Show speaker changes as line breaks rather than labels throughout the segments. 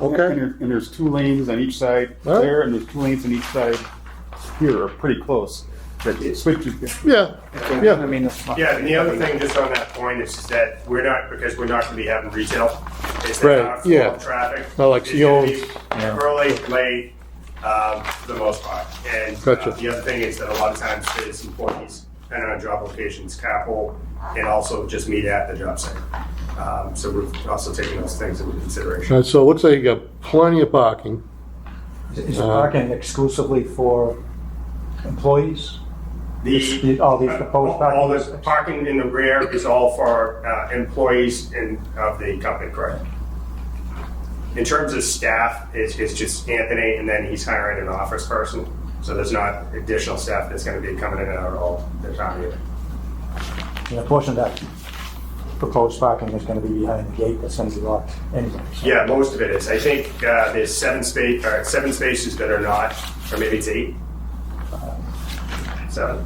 Okay.
And there- and there's two lanes on each side
All right.
there, and there's two lanes on each side here, are pretty close. That it switches.
Yeah,
I
yeah,
mean, that's not-
Yeah, and the other thing, just on that point, is that we're not, because we're not gonna be having retail. It's
Right,
an outflow
yeah.
of traffic.
Not like
It's gonna be
Sion's.
Early, late, um, for the most part. And uh,
Gotcha.
the other thing is that a lot of times it's employees, and on job locations, capital, and also just meet at the job site. Um, So we're also taking those things into consideration.
Uh, so it looks like you got plenty of parking.
Is the parking exclusively for employees? The- all these proposed
all- All
parking
this parking in the rear is all for uh, employees in, of the company, correct? In terms of staff, it's, it's just Anthony, and then he's hiring an office person, so there's not additional staff that's gonna be coming in and out all the time either.
And a portion of that proposed parking is going to be behind the gate that's going to be locked anyways.
Yeah, most of it is. I think uh, there's seven space, or seven spaces that are not, or maybe it's eight. Seven,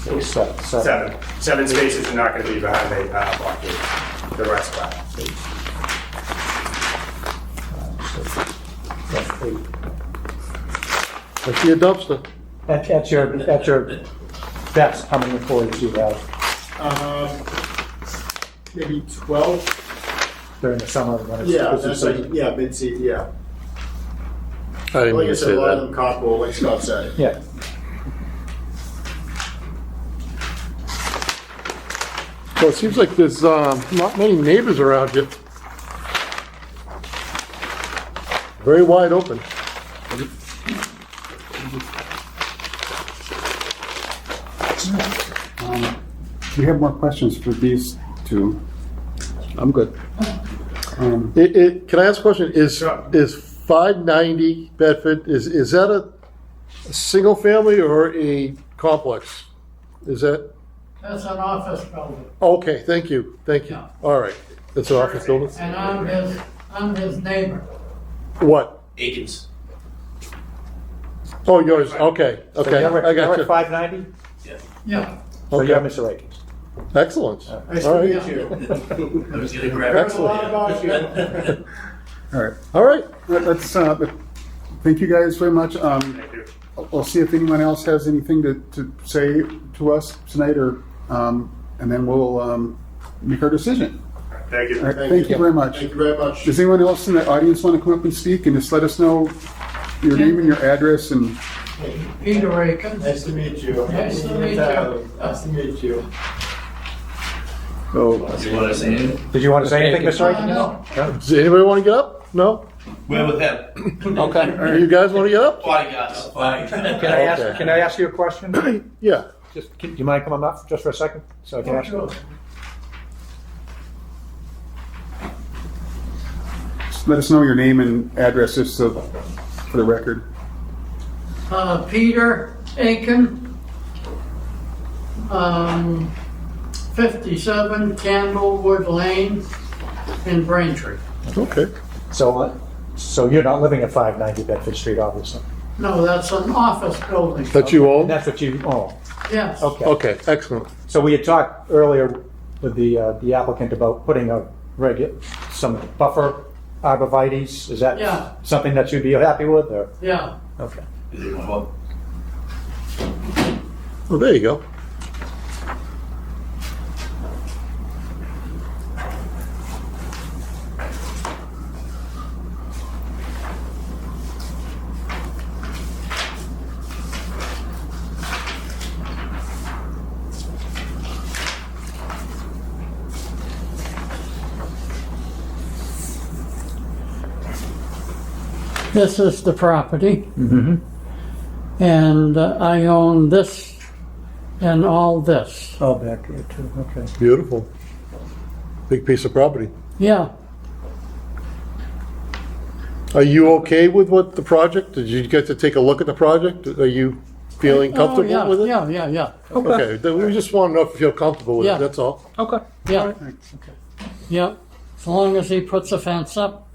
Six, seven, seven.
seven, seven spaces are not gonna be behind the uh, blockade, the rest are.
That's eight.
I see a dumpster.
At, at your, at your best, how many employees do you have
Um, maybe twelve.
during the summer when it's
Yeah,
busy
that's like
season?
yeah, mid season. Yeah,
I didn't
like
mean
I
to
said,
say
a lot of them
that.
carpool, like Scott said.
Yeah.
Well, it seems like there's, um, not many neighbors around you. Very wide open.
Do you have more questions for these two?
I'm good.
Um,
It, it, can I ask a question? Is,
Sure.
is five ninety Bedford, is, is that a, a single family or a complex? Is that,
That's an office building,
okay, thank you, thank you.
Yeah.
All right. It's an office building?
and I'm his, I'm his neighbor.
What?
Akins.
Oh, yours, okay,
So
okay,
you're at-
I
You're
got
at
you.
590?
Yeah,
So you're
Okay.
Mr. Akins.
Excellent.
Nice to
All right.
meet you.
I was gonna grab.
Excellent.
Excellent.
All right,
All right,
Let- let's, uh, let- thank you guys very much. Um,
Thank you.
I'll I'll see if anyone else has anything to, to say to us tonight or, um, and then we'll, um, make our decision.
Thank you.
All right, thank you very much.
Thank you very much.
Does anyone else in the audience want to come up and speak and just let us know your name and your address and
Peter Akins.
Nice to meet you.
Nice to meet you.
Nice to meet you.
so?
You wanna say it?
Did you want to say anything, Mr. Akins?
No.
does anybody want to get up? No?
We're with them.
You guys want to get up?
Bodyguards.
Can I ask,
Okay.
can I ask you a question?
Yeah.
Just, can- do you mind coming up just for a second? So I can ask you.
Just Let us know your name and address just so, for the record.
Uh, Peter Aiken. Um, fifty-seven Candlewood Lane in Braintree.
Okay.
So, uh, so you're not living at 590 Bedford Street, obviously.
No, that's an office building,
That you
And
own?
that's what you own.
yes.
Oh, Okay.
Okay, excellent.
So we had talked earlier with the, uh, the applicant about putting a regu, some buffer arborvitae's. Is that
Yeah.
something that you'd be happy with or?
Yeah,
Okay.
Well, there you go.
this is the property. And uh, I own this and all this,
Oh, back here too. Okay.
Beautiful. Big piece of property.
yeah.
Are you okay with what the project? Did you get to take a look at the project? Are you feeling
Oh,
comfortable
yeah,
with it?
Yeah, yeah, yeah.
Okay, then we just want to know if you feel comfortable with
Yeah.
it, that's all.
Okay.
Yeah. Yeah, as long as he puts a fence up,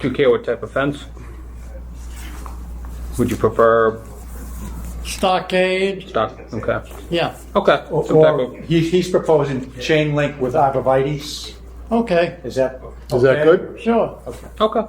Do you care what type of fence? Would you prefer
stockade,
stock? Okay.
yeah.
Okay.
Or,
Some type
or
of-
he, he's proposing chain link with arborvitae's. Okay,
Is that?
Is that
okay?
good?
sure.
Okay.